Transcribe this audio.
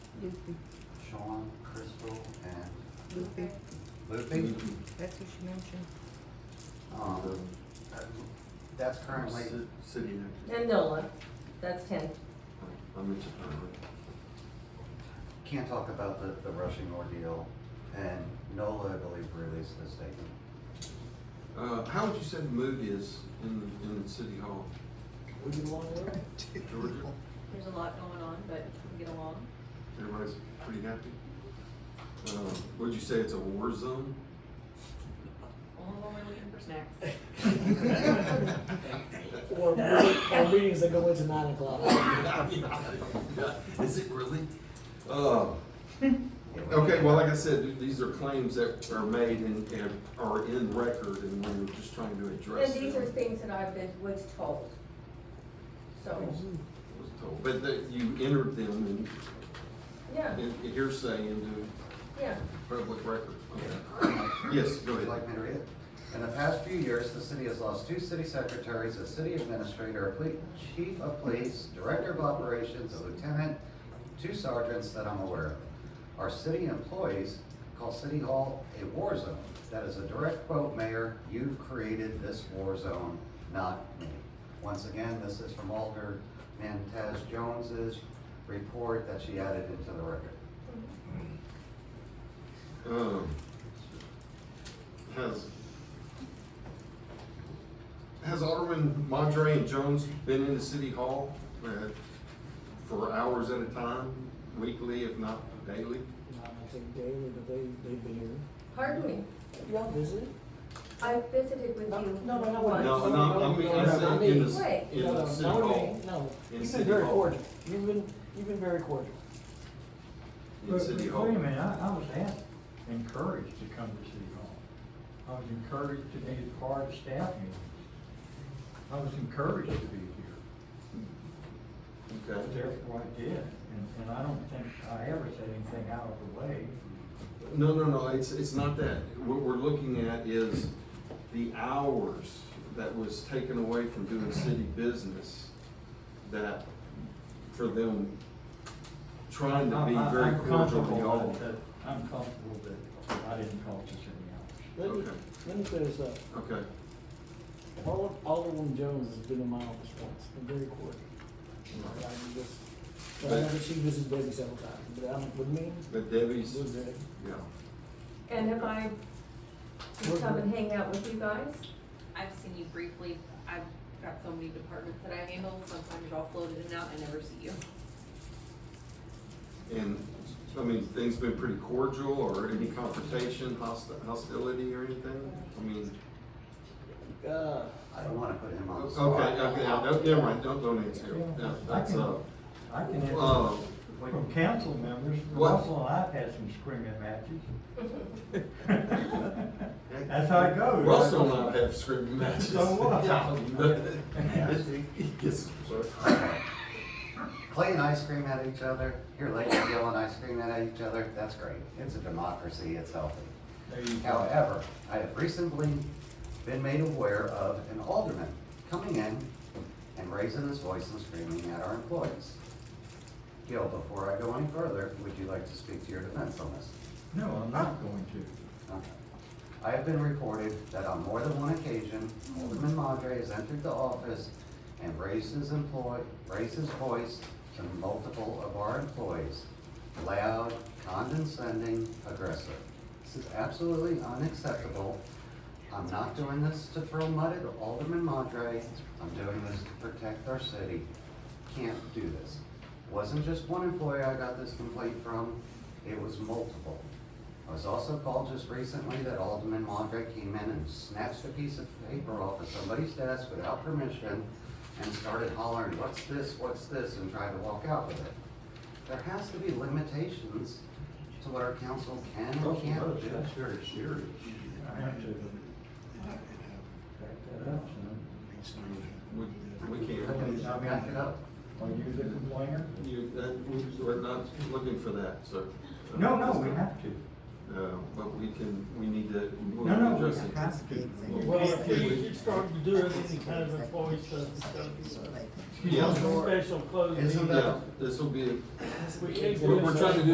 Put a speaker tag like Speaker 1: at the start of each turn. Speaker 1: Lucy,
Speaker 2: Sean, Crystal, and
Speaker 1: Lucy,
Speaker 2: Lupe.
Speaker 1: that's who she mentioned.
Speaker 2: Um, that- that's currently,
Speaker 3: Ci- City next.
Speaker 4: And Nola, that's ten.
Speaker 3: I mentioned her.
Speaker 2: can't talk about the, the rushing ordeal, and NOLA, I believe, released a statement.
Speaker 3: Uh, how would you say the mood is in, in City Hall? Georgia?
Speaker 5: There's a lot going on, but we get along.
Speaker 3: Everybody's pretty happy? Uh, would you say it's a war zone?
Speaker 5: Only when we're looking for snacks.
Speaker 6: Or, or meetings that go into nine o'clock.
Speaker 3: Is it really? Uh, Okay, well, like I said, th- these are claims that are made and, and are in record and we we're just trying to address
Speaker 4: And
Speaker 3: them.
Speaker 4: these are things that I've been, was told. So,
Speaker 3: Was told. But that you entered them
Speaker 4: yeah,
Speaker 3: in, in hearsay into
Speaker 4: yeah.
Speaker 3: public record. Okay.
Speaker 2: Yes,
Speaker 3: Yes, go
Speaker 2: Would
Speaker 3: ahead.
Speaker 2: you like me to read it? In the past few years, the city has lost two city secretaries, a city administrator, a poli- chief of police, director of operations, a lieutenant, two sergeants that I'm aware of. Our city employees call City Hall a war zone. That is a direct quote, Mayor, you've created this war zone, not me. Once again, this is from Alder Mantaz Jones's report that she added into the record.
Speaker 3: Um, Has, has Alderman Mondre and Jones been in the city hall uh, for hours at a time, weekly if not daily?
Speaker 6: I think daily, but they, they've been here.
Speaker 4: Pardon me,
Speaker 6: Y'all visited?
Speaker 4: I visited with you
Speaker 6: No,
Speaker 4: once.
Speaker 6: no, no, no,
Speaker 3: No, no, I mean, I said in the,
Speaker 4: Right.
Speaker 3: in
Speaker 6: No,
Speaker 3: the
Speaker 6: no,
Speaker 3: city
Speaker 6: no,
Speaker 3: hall,
Speaker 6: No,
Speaker 3: In
Speaker 6: you've
Speaker 3: City
Speaker 6: been very
Speaker 3: Hall.
Speaker 6: cordial. You've been, you've been very cordial.
Speaker 3: in
Speaker 7: But-
Speaker 3: city
Speaker 7: but
Speaker 3: hall.
Speaker 7: Wait a minute, I, I was asked, encouraged to come to City Hall. I was encouraged to be a part of staff meetings. I was encouraged to be here,
Speaker 3: Okay.
Speaker 7: therefore I did, and, and I don't think I ever said anything out of the way.
Speaker 3: No, no, no, it's, it's not that. What we're looking at is the hours that was taken away from doing city business that, for them trying to be
Speaker 7: I- I-
Speaker 3: very
Speaker 7: I'm
Speaker 3: cordial to
Speaker 7: comfortable
Speaker 3: y'all.
Speaker 7: that- that- I'm comfortable that I didn't call this any out.
Speaker 6: Let me,
Speaker 3: Okay.
Speaker 6: let me clear this up.
Speaker 3: Okay,
Speaker 6: Alder- Alderman Jones has been in my office once, and very cordial. Like, I just, I know that she visits Debbie several times, but I'm, with me,
Speaker 3: but Debbie's,
Speaker 6: it's with Debbie.
Speaker 3: yeah.
Speaker 4: And have I, just come and hang out with you guys?
Speaker 5: I've seen you briefly. I've got so many departments that I handle. Sometimes you're all floated in and out. I never see you.
Speaker 3: And, I mean, things been pretty cordial or any confrontation, hosti- hostility or anything? I mean,
Speaker 6: Uh,
Speaker 2: I don't want to put him on the
Speaker 3: okay,
Speaker 2: spot.
Speaker 3: okay, I don't, never mind, don't, don't answer. Yeah, That's, uh,
Speaker 7: I can answer
Speaker 3: uh,
Speaker 7: from council members,
Speaker 3: What?
Speaker 7: Russell and I've had some screaming matches. That's how it goes.
Speaker 3: Russell and I have scrimmage matches.
Speaker 7: So what?
Speaker 3: Yeah, but-
Speaker 7: Yeah.
Speaker 3: Yes, sir.
Speaker 2: Playing ice cream at each other, here lately yelling ice cream at each other, that's great. It's a democracy, it's healthy.
Speaker 7: There you go.
Speaker 2: However, I have recently been made aware of an alderman coming in and raising his voice and screaming at our employees. Gil, before I go any further, would you like to speak to your defense on this?
Speaker 7: No, I'm not going to.
Speaker 2: Okay. I have been reported that on more than one occasion, Alderman Madre has entered the office and raised his employ, raised his voice to multiple of our employees. Loud, condescending, aggressive. This is absolutely unacceptable. I'm not doing this to throw mud at Alderman Madre. I'm doing this to protect our city. Can't do this. Wasn't just one employee I got this complaint from, it was multiple. I was also called just recently that Alderman Mondray came in and snatched a piece of paper off of somebody's desk without permission and started hollering, what's this, what's this, and tried to walk out with it. There has to be limitations to what our council can and can't do.
Speaker 7: That's very serious. I have to back that up, son.
Speaker 3: We, we
Speaker 2: I can
Speaker 3: can't,
Speaker 2: back it up.
Speaker 7: Are you the complainer?
Speaker 3: you, that, we- we're not looking for that, sir.
Speaker 7: No, no, we have to.
Speaker 3: Uh, but we can, we need to. we'll
Speaker 7: No, no, we
Speaker 3: address it.
Speaker 7: have to.
Speaker 3: Well,
Speaker 8: Well, if
Speaker 3: we-
Speaker 8: you, you start to do it, any kind of employee stuff, it's gotta be,
Speaker 3: Yeah,
Speaker 8: uh, special closed.
Speaker 2: Isn't
Speaker 8: meeting.
Speaker 2: that-
Speaker 3: yeah, this will be,
Speaker 8: We can't do
Speaker 3: we're,
Speaker 8: this.
Speaker 3: we're trying to do